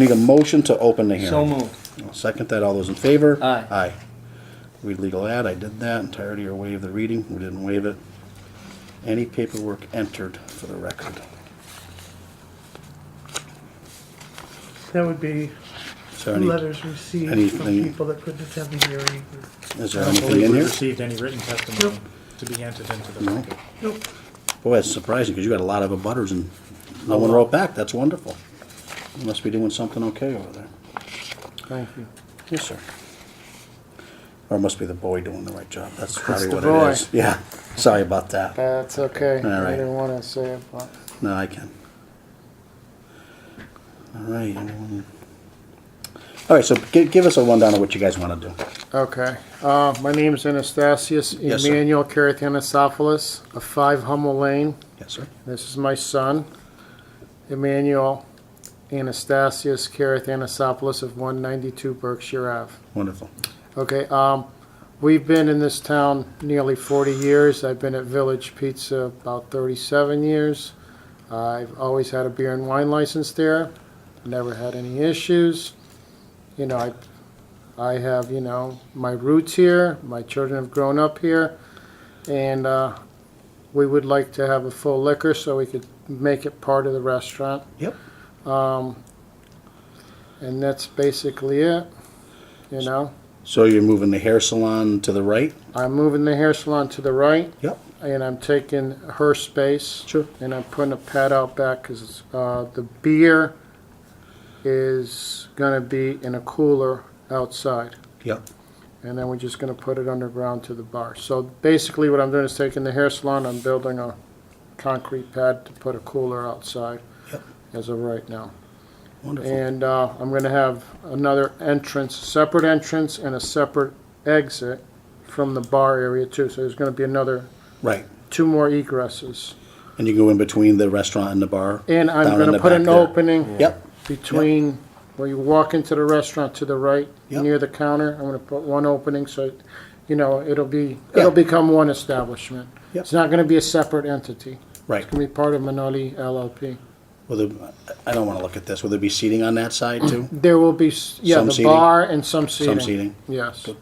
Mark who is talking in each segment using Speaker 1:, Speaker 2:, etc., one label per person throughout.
Speaker 1: Need a motion to open the hearing.
Speaker 2: So moved.
Speaker 1: I'll Second that, all those in favor?
Speaker 2: Aye.
Speaker 1: Aye. Read legal ad, I did that, entirety or waive the reading, we didn't waive it. Any paperwork entered for the record.
Speaker 3: That would be
Speaker 1: Is there any,
Speaker 3: letters received from
Speaker 1: anything-
Speaker 3: people that couldn't attend the hearing.
Speaker 1: is
Speaker 4: I
Speaker 1: there
Speaker 4: don't
Speaker 1: anything
Speaker 4: believe
Speaker 1: in
Speaker 4: we
Speaker 1: here?
Speaker 4: received any written testimony to be entered into the record.
Speaker 3: Nope,
Speaker 1: Boy, that's surprising, because you got a lot of abutters and no one wrote back, that's wonderful. You Must be doing something okay over there.
Speaker 2: Thank you.
Speaker 1: Yes, sir. Or it must be the boy doing the right job, that's probably
Speaker 2: the
Speaker 1: what
Speaker 2: boy.
Speaker 1: it is. Yeah, sorry about that.
Speaker 2: That's okay.
Speaker 1: All right.
Speaker 2: I didn't want to say it, but
Speaker 1: No, I can. All right. anyone- All right, so gi- give us a rundown of what you guys want to do.
Speaker 2: okay. Uh, my name is Anastasius
Speaker 1: Yes, sir.
Speaker 2: Emmanuel Carathanasopoulos of Five Hummel Lane.
Speaker 1: Yes, sir.
Speaker 2: This is my son, Emmanuel Anastasius Carathanasopoulos of 192 Berkshire Ave.
Speaker 1: Wonderful.
Speaker 2: Okay, um, we've been in this town nearly forty years. I've been at Village Pizza about thirty-seven years. I've always had a beer and wine license there, never had any issues. You know, I, I have, you know, my roots here, my children have grown up here, and, uh, we would like to have a full liquor so we could make it part of the restaurant,
Speaker 1: Yep.
Speaker 2: and that's basically it, you know?
Speaker 1: So you're moving the hair salon to the right?
Speaker 2: I'm moving the hair salon to the right.
Speaker 1: Yep.
Speaker 2: and I'm taking her space.
Speaker 1: Sure.
Speaker 2: And I'm putting a pad out back because uh, the beer is going to be in a cooler outside.
Speaker 1: Yep.
Speaker 2: And then we're just going to put it underground to the bar. So basically, what I'm doing is taking the hair salon, I'm building a concrete pad to put a cooler outside
Speaker 1: Yep.
Speaker 2: as of right now.
Speaker 1: Wonderful.
Speaker 2: And uh, I'm going to have another entrance, separate entrance, and a separate exit from the bar area, too. So there's going to be another
Speaker 1: Right.
Speaker 2: two more egresses.
Speaker 1: And you go in between the restaurant and the bar?
Speaker 2: And I'm
Speaker 1: down in
Speaker 2: gonna
Speaker 1: the
Speaker 2: put
Speaker 1: back
Speaker 2: an
Speaker 1: there.
Speaker 2: opening
Speaker 1: Yep.
Speaker 2: between, where you walk into the restaurant to the right,
Speaker 1: Yep.
Speaker 2: near the counter, I'm gonna put one opening, so, you know, it'll be, it'll become one establishment.
Speaker 1: Yep.
Speaker 2: It's not gonna be a separate entity,
Speaker 1: Right.
Speaker 2: it's gonna be part of Minoli LLP.
Speaker 1: Will there, I don't want to look at this. Will there be seating on that side too?
Speaker 2: There will be, s- yeah,
Speaker 1: Some
Speaker 2: the
Speaker 1: seating?
Speaker 2: bar and some seating.
Speaker 1: seating.
Speaker 2: Yes.
Speaker 1: Good.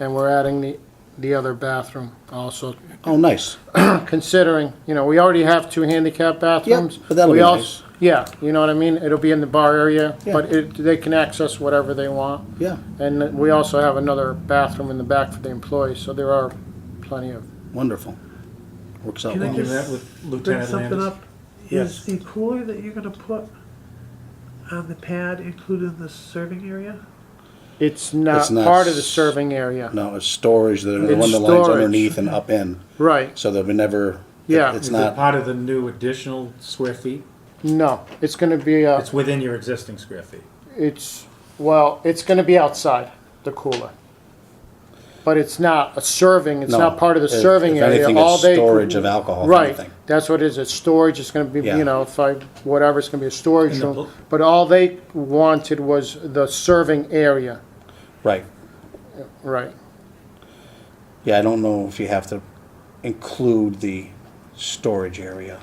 Speaker 2: And we're adding the, the other bathroom also,
Speaker 1: Oh, nice.
Speaker 2: considering, you know, we already have two handicap bathrooms.
Speaker 1: but that'll
Speaker 2: We
Speaker 1: be nice.
Speaker 2: als- Yeah, you know what I mean? It'll be in the bar area,
Speaker 1: Yeah.
Speaker 2: but it, they can access whatever they want.
Speaker 1: Yeah.
Speaker 2: And then we also have another bathroom in the back for the employees, so there are plenty of,
Speaker 1: Wonderful. Works out
Speaker 3: Can I
Speaker 1: well.
Speaker 4: You
Speaker 3: just-
Speaker 4: met with
Speaker 3: bring
Speaker 4: Lieutenant
Speaker 3: something
Speaker 4: Landis?
Speaker 3: up.
Speaker 4: Yes.
Speaker 3: Is the cooler that you're gonna put on the pad included in the serving area?
Speaker 2: it's not
Speaker 1: It's not
Speaker 2: part of the
Speaker 1: s-
Speaker 2: serving area.
Speaker 1: No, it's storage. The the
Speaker 2: It's
Speaker 1: one that lines
Speaker 2: storage.
Speaker 1: underneath and up in.
Speaker 2: Right,
Speaker 1: So that we never.
Speaker 2: Yeah.
Speaker 1: It's
Speaker 4: Is it
Speaker 1: not.
Speaker 4: part of the new additional square feet?
Speaker 2: no, it's gonna be, uh,
Speaker 4: It's within your existing square feet.
Speaker 2: it's, well, it's gonna be outside, the cooler. But it's not a serving, it's
Speaker 1: No,
Speaker 2: not part of the
Speaker 1: if-
Speaker 2: serving
Speaker 1: if
Speaker 2: area,
Speaker 1: anything,
Speaker 2: all
Speaker 1: it's
Speaker 2: day.
Speaker 1: storage of alcohol, if
Speaker 2: Right,
Speaker 1: anything.
Speaker 2: that's what it is, it's storage, it's gonna be,
Speaker 1: Yeah.
Speaker 2: you know, if I, whatever, it's gonna be a storage
Speaker 4: And the
Speaker 2: room.
Speaker 4: pl-
Speaker 2: But all they wanted was the serving area,
Speaker 1: Right.
Speaker 2: right,
Speaker 1: Yeah, I don't know if you have to include the storage area.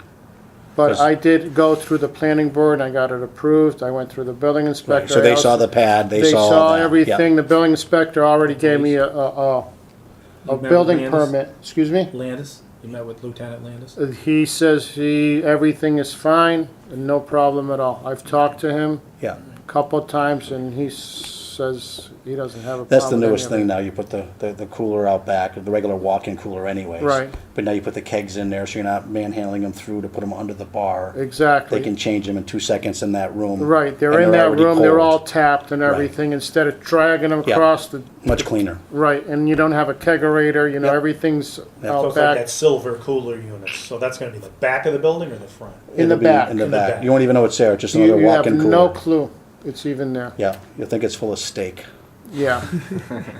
Speaker 2: but
Speaker 1: Yes.
Speaker 2: I did go through the planning board, and I got it approved, I went through the building
Speaker 1: Right,
Speaker 2: inspector.
Speaker 1: So
Speaker 2: I
Speaker 1: they
Speaker 2: also-
Speaker 1: saw the pad, they
Speaker 2: They
Speaker 1: saw.
Speaker 2: saw
Speaker 1: that, yeah.
Speaker 2: everything, the building inspector already gave me a, a, a- a
Speaker 4: met with
Speaker 2: building
Speaker 4: Landis?
Speaker 2: permit, excuse me?
Speaker 4: Landis? You met with Lieutenant Landis?
Speaker 2: He says he, everything is fine, and no problem at all. I've talked to him
Speaker 1: Yeah,
Speaker 2: a couple of times, and he says he doesn't have a problem.
Speaker 1: that's the
Speaker 2: with any
Speaker 1: newest
Speaker 2: of
Speaker 1: thing
Speaker 2: it.
Speaker 1: now, you put the, the the cooler out back, the regular walk-in cooler anyways.
Speaker 2: Right.
Speaker 1: But now you put the kegs in there, so you're not manhandling them through to put them under the bar. They
Speaker 2: Exactly.
Speaker 1: can change them in two seconds in that room.
Speaker 2: Right, they're
Speaker 1: and
Speaker 2: in that
Speaker 1: already
Speaker 2: room, they're all
Speaker 1: cold.
Speaker 2: tapped and everything, instead of dragging them
Speaker 1: Yeah.
Speaker 2: across the,
Speaker 1: Much cleaner,
Speaker 2: right, and you don't have a kegerator, you know,
Speaker 1: Yep.
Speaker 2: everything's
Speaker 5: So
Speaker 2: out
Speaker 5: it's like
Speaker 2: back.
Speaker 5: that silver cooler unit, so that's gonna be the back of the building or the front?
Speaker 2: In the
Speaker 1: It'll be
Speaker 2: back.
Speaker 1: In the
Speaker 2: In
Speaker 5: the
Speaker 1: back,
Speaker 5: back.
Speaker 1: you won't even know it's there, just
Speaker 2: You
Speaker 1: another
Speaker 2: you have
Speaker 1: walk-in
Speaker 2: no
Speaker 1: cooler.
Speaker 2: clue it's even there.
Speaker 1: Yeah, you'll think it's full of steak,
Speaker 2: Yeah,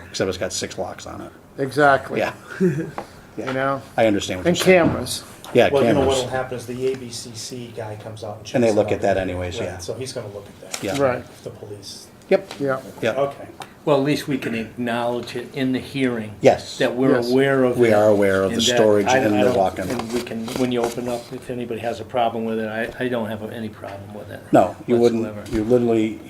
Speaker 1: except it's got six locks on it,
Speaker 2: exactly,
Speaker 1: yeah,
Speaker 2: you know,
Speaker 1: I understand what you're
Speaker 2: and
Speaker 1: saying.
Speaker 2: cameras.
Speaker 1: Yeah,
Speaker 4: Well, you know
Speaker 1: cameras.
Speaker 4: what'll happen is the ABCC guy comes out and checks.
Speaker 1: And they
Speaker 4: it
Speaker 1: look
Speaker 4: out.
Speaker 1: at that anyways,
Speaker 4: Right,
Speaker 1: yeah.
Speaker 4: So he's gonna look at that.
Speaker 1: Yeah.
Speaker 2: Right,
Speaker 4: If The police,
Speaker 1: Yep,
Speaker 2: yeah.
Speaker 1: yep,
Speaker 4: okay.
Speaker 6: Well, at least we can acknowledge it in the hearing.
Speaker 1: Yes.
Speaker 6: That we're
Speaker 2: Yes.
Speaker 6: aware of it.
Speaker 1: We are aware of the
Speaker 6: and that
Speaker 1: storage
Speaker 6: I-
Speaker 1: and
Speaker 6: I
Speaker 1: the
Speaker 6: don't-
Speaker 1: walk-in.
Speaker 6: And we can, when you open up, if anybody has a problem with it, I, I don't have any problem with it.
Speaker 1: no, you
Speaker 6: whatsoever.
Speaker 1: wouldn't, you literally,